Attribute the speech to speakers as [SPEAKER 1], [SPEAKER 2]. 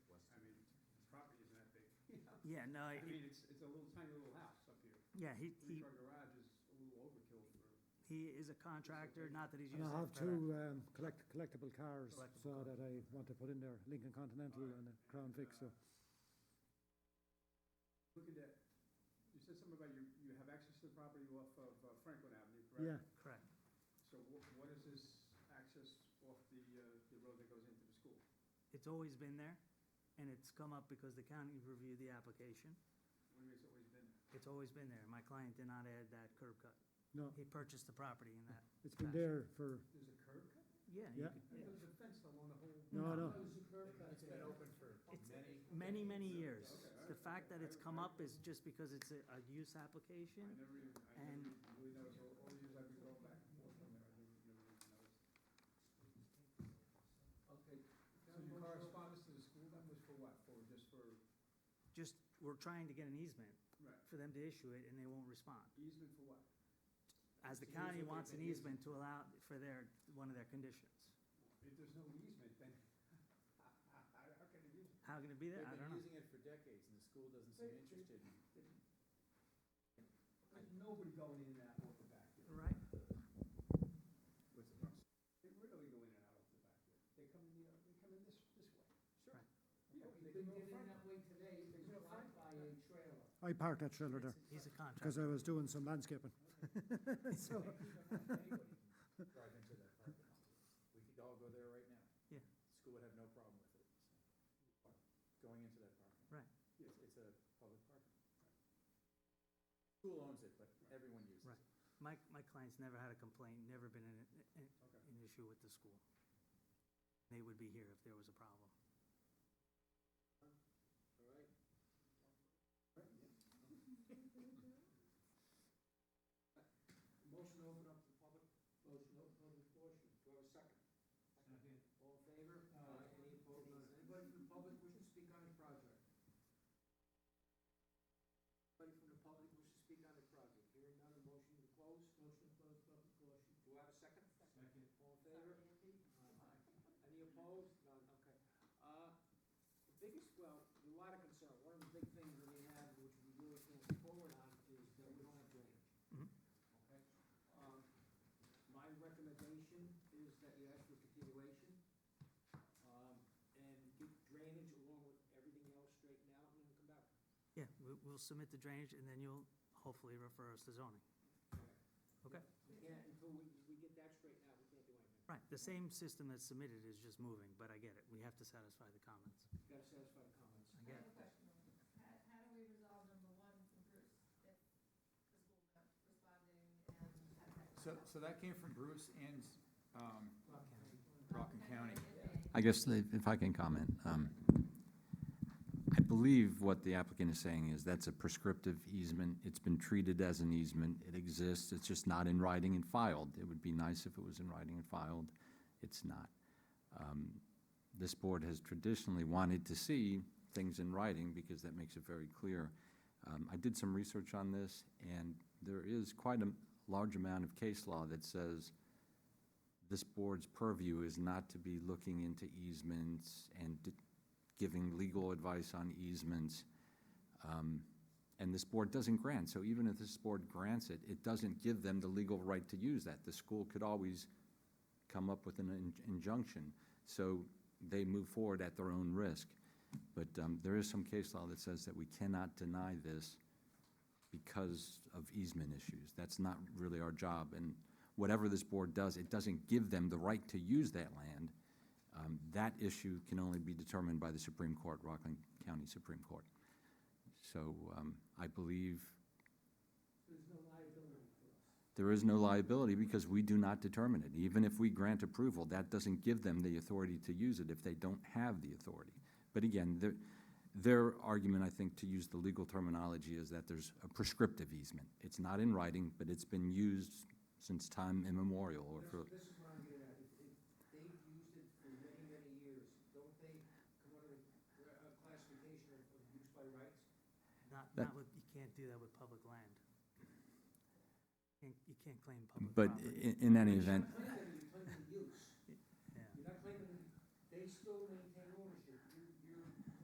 [SPEAKER 1] Yeah, no,
[SPEAKER 2] I
[SPEAKER 1] I-
[SPEAKER 2] mean, it's, it's a little tiny little house up here.
[SPEAKER 1] yeah, he, he,
[SPEAKER 2] Three-car garage is a little overkill for,
[SPEAKER 1] he is a contractor, not that he's
[SPEAKER 3] And
[SPEAKER 1] used
[SPEAKER 3] I
[SPEAKER 1] it
[SPEAKER 3] have
[SPEAKER 1] for
[SPEAKER 3] two um, collect- collectible cars,
[SPEAKER 1] Collectible
[SPEAKER 3] so
[SPEAKER 1] cars.
[SPEAKER 3] that I want to put in there, Lincoln Continental
[SPEAKER 2] Alright,
[SPEAKER 3] and a Crown Vic, so.
[SPEAKER 2] uh, looking at, you said something about you, you have access to the property off of uh, Franklin Avenue,
[SPEAKER 3] Yeah,
[SPEAKER 2] correct?
[SPEAKER 1] that. Correct.
[SPEAKER 2] So what, what is this access off the, uh, the road that goes into the school?
[SPEAKER 1] It's always been there, and it's come up because the county reviewed the application.
[SPEAKER 2] What do you mean it's always been?
[SPEAKER 1] It's always been there. My client did not add that curb cut.
[SPEAKER 3] no,
[SPEAKER 1] He purchased the property in that,
[SPEAKER 3] it's been
[SPEAKER 1] fashion.
[SPEAKER 3] there for,
[SPEAKER 2] There's a curb cut?
[SPEAKER 1] yeah. you
[SPEAKER 3] Yeah.
[SPEAKER 1] could-
[SPEAKER 2] And there's a fence along the whole.
[SPEAKER 3] no, no.
[SPEAKER 4] There's a curb cut
[SPEAKER 5] It's been
[SPEAKER 4] there.
[SPEAKER 5] open for
[SPEAKER 1] It's-
[SPEAKER 5] many.
[SPEAKER 1] Many, many years.
[SPEAKER 2] Okay, all
[SPEAKER 1] The
[SPEAKER 2] right,
[SPEAKER 1] fact
[SPEAKER 2] okay.
[SPEAKER 1] that it's come up is just because it's a, a use
[SPEAKER 2] I
[SPEAKER 1] application.
[SPEAKER 2] never even, I
[SPEAKER 1] And-
[SPEAKER 2] never really noticed, all all the years I've been going back and forth from there, I never, never even noticed. Okay, so your correspondence to the school, that was for what, for, just for?
[SPEAKER 1] Just, we're trying to get an easement
[SPEAKER 2] Right.
[SPEAKER 1] for them to issue it, and they won't respond.
[SPEAKER 2] Easement for what?
[SPEAKER 1] As the
[SPEAKER 2] So
[SPEAKER 1] county
[SPEAKER 2] usually
[SPEAKER 1] wants
[SPEAKER 2] they
[SPEAKER 1] an
[SPEAKER 2] use-
[SPEAKER 1] easement to allow for their, one of their conditions.
[SPEAKER 2] If there's no easement, then how can it use it?
[SPEAKER 1] How can it be
[SPEAKER 5] They've
[SPEAKER 1] there? I don't
[SPEAKER 5] been
[SPEAKER 1] know.
[SPEAKER 5] using it for decades and the school doesn't seem
[SPEAKER 2] They- they-
[SPEAKER 5] interested.
[SPEAKER 2] There's nobody going in and out of the back there.
[SPEAKER 1] Right?
[SPEAKER 5] What's the problem?
[SPEAKER 2] They rarely go in and out of the back there. They come in, the other- they come in this, this way.
[SPEAKER 1] Right.
[SPEAKER 2] Yeah,
[SPEAKER 4] They
[SPEAKER 2] they
[SPEAKER 4] didn't
[SPEAKER 2] can go in
[SPEAKER 4] get in
[SPEAKER 2] front.
[SPEAKER 4] that way today, it was
[SPEAKER 2] Go
[SPEAKER 4] blocked
[SPEAKER 2] front.
[SPEAKER 4] by a trailer.
[SPEAKER 3] I parked that trailer there,
[SPEAKER 1] It's- He's a
[SPEAKER 3] because
[SPEAKER 1] contractor.
[SPEAKER 3] I was doing some landscaping.
[SPEAKER 4] They
[SPEAKER 3] So,
[SPEAKER 4] keep it up anyway.
[SPEAKER 5] Drive into that parking lot. We could all go there right now.
[SPEAKER 1] Yeah.
[SPEAKER 5] School would have no problem with it. so. Going into that parking. lot.
[SPEAKER 1] Right.
[SPEAKER 5] It's, it's a public parking. School owns it, but everyone uses
[SPEAKER 1] Right.
[SPEAKER 5] it.
[SPEAKER 1] My, my client's never had a complaint, never been in, an-
[SPEAKER 2] Okay.
[SPEAKER 1] an issue with the school. They would be here if there was a problem.
[SPEAKER 5] All right.
[SPEAKER 2] Right, yeah. Motion to open up the public?
[SPEAKER 4] Motion open public portion.
[SPEAKER 2] Do I have a second?
[SPEAKER 4] Second. All in favor? Aye. Any opposed? None. Anybody from the public wish to speak on the project? Anybody from the public wish to speak on the project? Hearing none, a motion to close? Motion to close public portion. Do I have a second?
[SPEAKER 2] Second.
[SPEAKER 4] All in favor? Aye. Any opposed? None, okay. Uh, The biggest, well, a lot of concern, one of the big things that we have, which we really can't move forward on, is that we don't have drainage.
[SPEAKER 1] Mhm.
[SPEAKER 4] Okay? Um, My recommendation is that you ask for continuation, um, and get drainage along with everything else straightened out, and then come back.
[SPEAKER 1] Yeah, we, we'll submit the drainage, and then you'll hopefully refer us to zoning. Okay.
[SPEAKER 4] We can't, until we, we get that straightened out, we can't do anything.
[SPEAKER 1] Right, the same system that's submitted is just moving, but I get it. We have to satisfy the comments.
[SPEAKER 4] You gotta satisfy the comments.
[SPEAKER 1] I
[SPEAKER 6] I
[SPEAKER 1] get
[SPEAKER 6] have
[SPEAKER 1] it.
[SPEAKER 6] a question. How, how do we resolve number one from Bruce, if the school not responding and had that?
[SPEAKER 7] So, so that came from Bruce and, um, Rockland
[SPEAKER 6] Rockland
[SPEAKER 7] County.
[SPEAKER 8] I guess that- if I can comment, um, I believe what the applicant is saying is that's a prescriptive easement. It's been treated as an easement. It exists. It's just not in writing and filed. It would be nice if it was in writing and filed. It's not. Um, This board has traditionally wanted to see things in writing because that makes it very clear. Um, I did some research on this, and there is quite a large amount of case law that says this board's purview is not to be looking into easements and d- giving legal advice on easements. Um, And this board doesn't grant, so even if this board grants it, it doesn't give them the legal right to use that. The school could always come up with an in- injunction. So they move forward at their own risk. But um, there is some case law that says that we cannot deny this because of easement issues. That's not really our job, and whatever this board does, it doesn't give them the right to use that land. Um, That issue can only be determined by the Supreme Court, Rockland County Supreme Court. So um, I believe
[SPEAKER 4] There's no liability for us.
[SPEAKER 8] there is no liability because we do not determine it. Even if we grant approval, that doesn't give them the authority to use it if they don't have the authority. But again, their, their argument, I think, to use the legal terminology is that there's a prescriptive easement. It's not in writing, but it's been used since time immemorial or for.
[SPEAKER 4] This this is what I'm getting at, if, if they've used it for many, many years, don't they come under a a classification of of use by rights?
[SPEAKER 1] Not,
[SPEAKER 8] That-
[SPEAKER 1] not with, you can't do that with public land. You you can't claim public
[SPEAKER 8] But
[SPEAKER 1] property.
[SPEAKER 8] in, in any
[SPEAKER 4] You're
[SPEAKER 8] event,
[SPEAKER 4] not claiming it, You're claiming use,
[SPEAKER 1] Yeah.
[SPEAKER 4] you're not claiming, they still maintain ownership.